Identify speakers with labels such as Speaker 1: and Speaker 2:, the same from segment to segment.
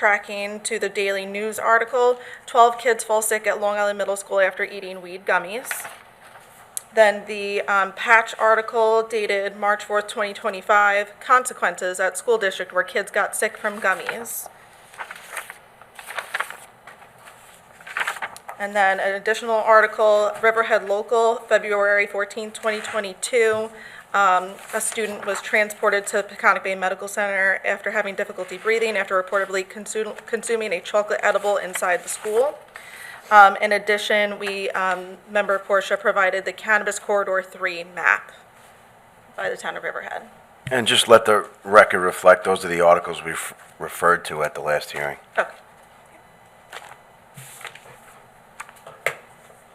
Speaker 1: Backtracking to the daily news article, 12 kids fall sick at Long Island Middle School after eating weed gummies. Then the um, patch article dated March 4th, 2025, consequences at school district where kids got sick from gummies. And then an additional article, Riverhead Local, February 14th, 2022. um, A student was transported to Peconic Bay Medical Center after having difficulty breathing after reportedly consu- consuming a chocolate edible inside the school. Um, In addition, we, um, member Portia provided the Cannabis Corridor 3 map by the town of Riverhead.
Speaker 2: And just let the record reflect, those are the articles we referred to at the last hearing.
Speaker 1: Okay.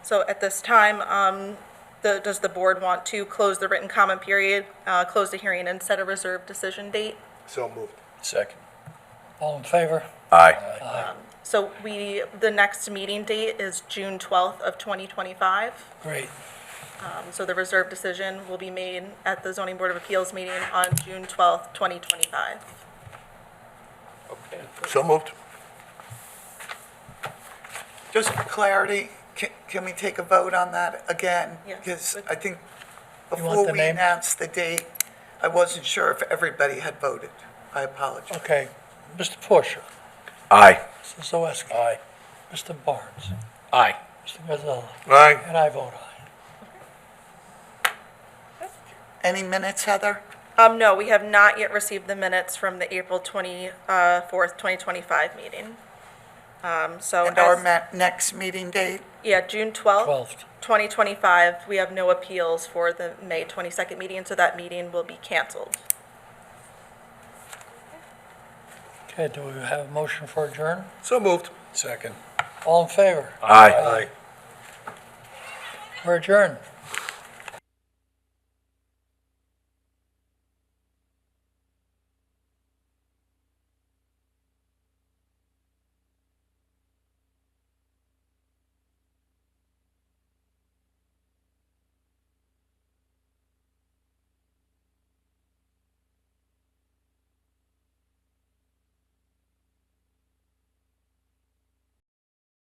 Speaker 1: So at this time, um, the- does the board want to close the written comment period, uh, close the hearing, and set a reserved decision date?
Speaker 3: So moved.
Speaker 4: Second. All in favor?
Speaker 2: Aye.
Speaker 1: So we, the next meeting date is June 12th of 2025.
Speaker 4: Great.
Speaker 1: Um, So the reserved decision will be made at the zoning board of appeals meeting on June 12th, 2025.
Speaker 3: So moved.
Speaker 5: Just for clarity, can, can we take a vote on that again?
Speaker 1: Yeah.
Speaker 5: Because I think
Speaker 4: You want the
Speaker 5: before we
Speaker 4: name?
Speaker 5: announced the date, I wasn't sure if everybody had voted. I apologize.
Speaker 4: Okay. Mr. Porcher.
Speaker 2: Aye.
Speaker 4: Mrs. Zawiski. Aye. Mr. Barnes. Aye. Mr. Gonzalez.
Speaker 3: Aye.
Speaker 4: And I vote aye.
Speaker 5: Any minutes, Heather?
Speaker 1: Um, no, we have not yet received the minutes from the April twenty-fourth, twenty twenty-five meeting. Um, so,
Speaker 5: And our
Speaker 1: as-
Speaker 5: ma- next meeting date?
Speaker 1: yeah, June twelfth,
Speaker 4: Twelfth.
Speaker 1: twenty twenty-five, we have no appeals for the May twenty-second meeting, so that meeting will be canceled.
Speaker 4: Okay, do we have a motion for adjourn?
Speaker 3: So moved.
Speaker 4: All in favor?
Speaker 2: Aye.
Speaker 4: We're adjourned.